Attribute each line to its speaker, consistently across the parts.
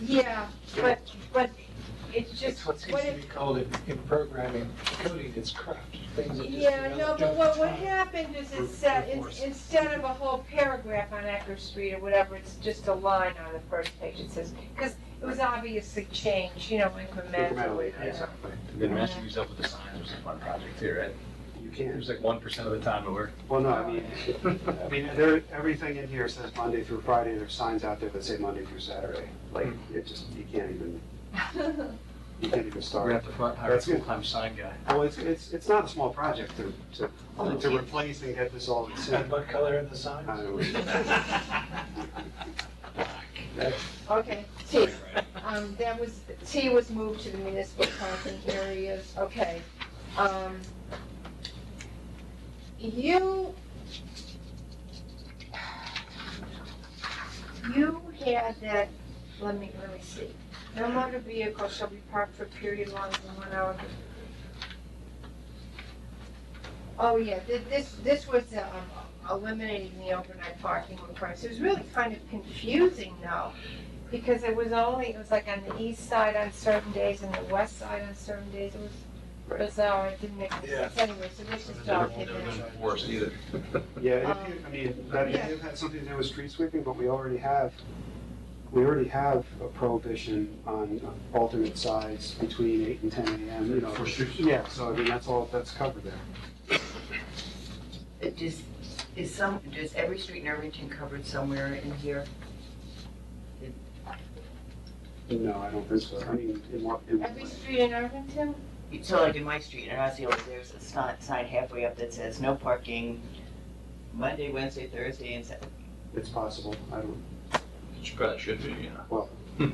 Speaker 1: Yeah, but, but it's
Speaker 2: It's
Speaker 1: just,
Speaker 2: what
Speaker 1: what
Speaker 2: seems to
Speaker 1: it,
Speaker 2: be called in, in programming, coding is crap, things that just.
Speaker 1: yeah, no, but what, what happened is it said,
Speaker 2: Brute force.
Speaker 1: in- instead of a whole paragraph on Ecker Street or whatever, it's just a line on the first page, it says, because it was obviously changed, you know, incrementally.
Speaker 2: Exactly.
Speaker 3: And then matching these up with the signs was a fun project too, right?
Speaker 4: You
Speaker 3: It
Speaker 4: can,
Speaker 3: was like one percent of the time it worked.
Speaker 4: well, no, I mean, I mean, there, everything in here says Monday through Friday, there's signs out there that say Monday through Saturday. Like,
Speaker 3: Hmm.
Speaker 4: it just, you can't even, you can't even
Speaker 3: We're gonna
Speaker 4: start.
Speaker 3: have to fi- hire a
Speaker 4: That's good.
Speaker 3: full-time sign guy.
Speaker 4: Well, it's, it's, it's not a small project to,
Speaker 3: Oh,
Speaker 4: to, to replace and get this all in
Speaker 2: And
Speaker 4: sync.
Speaker 2: what color are the
Speaker 4: I
Speaker 2: signs?
Speaker 4: don't know.
Speaker 1: Okay, T, um, that was, T was moved to the municipal parking areas, okay. Um, You, you had that, let me, let me see. No motor vehicle shall be parked for a period longer than one hour. Oh, yeah, thi- this, this was, um, eliminating the overnight parking requirements. It was really kind of confusing though. Because it was only, it was like on the east side on certain days and the west side on certain days. It was
Speaker 4: Right.
Speaker 1: bizarre. It didn't make any sense anyway, so this is documented.
Speaker 3: Worse either.
Speaker 4: Yeah,
Speaker 3: uh,
Speaker 4: and if you, I mean, that may have had something to do with street sweeping, but we already have, we already have a prohibition on alternate sides between eight and ten AM, you know.
Speaker 3: For street sweeping.
Speaker 4: Yeah, so I mean, that's all, that's covered there.
Speaker 5: It Does, is some, does every street in Irvington covered somewhere in here?
Speaker 4: No, I don't think so. I mean, in what, in what
Speaker 1: Every
Speaker 4: way?
Speaker 1: street in Irvington?
Speaker 5: So like in my street, in Osceola, there's a sign, sign halfway up that says no parking Monday, Wednesday, Thursday, and Saturday.
Speaker 4: It's possible. I don't,
Speaker 3: Which probably should be, you
Speaker 4: well,
Speaker 3: know.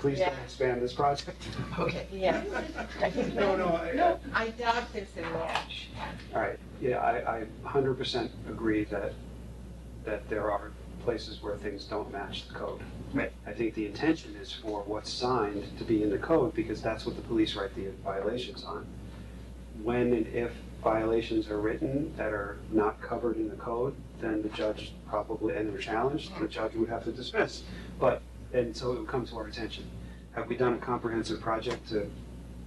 Speaker 4: please don't
Speaker 1: Yeah.
Speaker 4: expand this project.
Speaker 5: Okay.
Speaker 1: Yeah.
Speaker 4: No, no, I,
Speaker 1: I doubt there's a match.
Speaker 4: all right, yeah, I, I hundred percent agree that, that there are places where things don't match the code.
Speaker 5: Right.
Speaker 4: I think the intention is for what's signed to be in the code, because that's what the police write the violations on. When and if violations are written that are not covered in the code, then the judge probably, and they're challenged, the judge would have to dismiss. But, and so it would come to our attention. Have we done a comprehensive project to,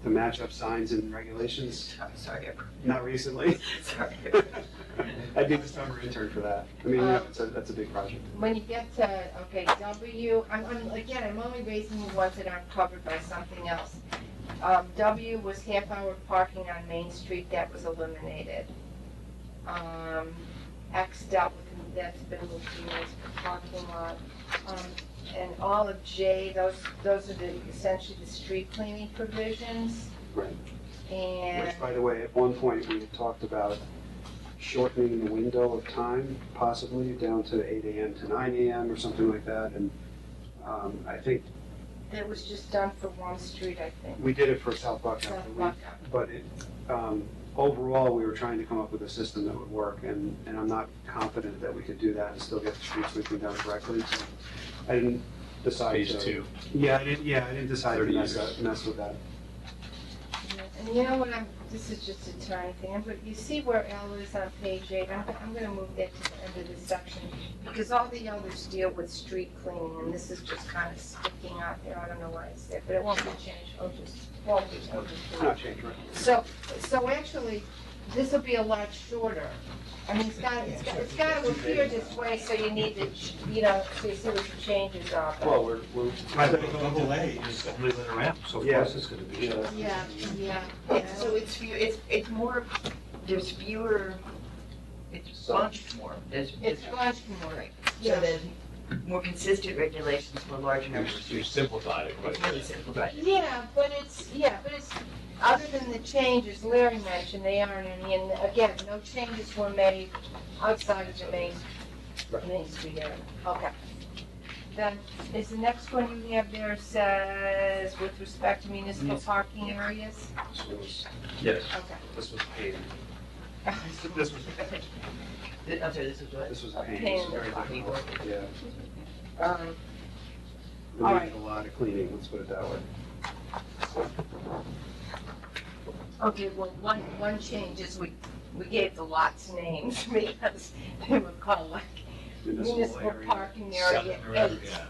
Speaker 4: to match up signs and regulations?
Speaker 5: I'm sorry,
Speaker 4: Not recently.
Speaker 5: I'm sorry.
Speaker 4: I'd be the summer intern for that. I mean, you
Speaker 5: Uh,
Speaker 4: know, it's a, that's a big project.
Speaker 1: When you get to, okay, W, I'm, I'm, again, I'm only raising the ones that aren't covered by something else. Um, W was half-hour parking on Main Street, that was eliminated. Um, X dealt with, that's been moved to municipal parking lot. Um, and all of J, those, those are the, essentially the street cleaning provisions.
Speaker 4: Right.
Speaker 1: And,
Speaker 4: Which, by the way, at one point, we had talked about shortening the window of time, possibly down to eight AM to nine AM or something like that, and um, I think
Speaker 1: that was just done for one street, I think.
Speaker 4: we did it for South Buckout,
Speaker 1: South
Speaker 4: but we-
Speaker 1: Buckout.
Speaker 4: but it, um, overall, we were trying to come up with a system that would work, and, and I'm not confident that we could do that and still get the street sweeping done correctly, so I didn't decide to.
Speaker 3: Phase two.
Speaker 4: Yeah, I didn't, yeah, I didn't decide to
Speaker 3: 30
Speaker 4: mess,
Speaker 3: years.
Speaker 4: up- mess with that.
Speaker 1: And you know what, I'm, this is just a tiny thing, but you see where L is on page eight, I'm, I'm gonna move that to the end of this section. Because all the others deal with street cleaning, and this is just kind of sticking out there, I don't know why it's there, but it won't be changed, it'll just, won't be, it'll just be-
Speaker 4: Not change, right?
Speaker 1: So, so actually, this will be a lot shorter. I mean, it's got, it's got, it's got to appear this way, so you need to, ch- you know, so you see what the changes are. but-
Speaker 4: Well, we're, we're.
Speaker 2: delay is moving it around, so
Speaker 4: of course
Speaker 2: it's gonna
Speaker 4: Yeah.
Speaker 1: Yeah, yeah,
Speaker 5: It's- So it's few, it's, it's more, there's fewer, it's bunched more. There's,
Speaker 1: It's
Speaker 5: it's,
Speaker 1: much more,
Speaker 5: so
Speaker 1: yeah.
Speaker 5: there's more consistent regulations for larger
Speaker 3: You
Speaker 5: numbers.
Speaker 3: you simplified it,
Speaker 5: It's
Speaker 3: but
Speaker 5: really simplified.
Speaker 1: Yeah, but it's, yeah, but it's, other than the changes Larry mentioned, they aren't any, and again, no changes were made outside of the main, main street area. Okay. Then, is the next one you have there says with respect to municipal parking areas?
Speaker 4: This was,
Speaker 3: yes.
Speaker 1: Okay.
Speaker 4: this was paid. This was,
Speaker 5: Th- I'm sorry, this is what?
Speaker 4: this was
Speaker 1: A
Speaker 4: paid.
Speaker 1: pain.
Speaker 4: It was very difficult. Yeah.
Speaker 1: Um,
Speaker 4: We
Speaker 1: All
Speaker 4: needed a lot of cleaning, let's put it that way.
Speaker 1: Okay, well, one, one change is we, we gave the lots names because they were called like municipal parking area
Speaker 3: Seven or
Speaker 1: eight.
Speaker 3: whatever, yeah.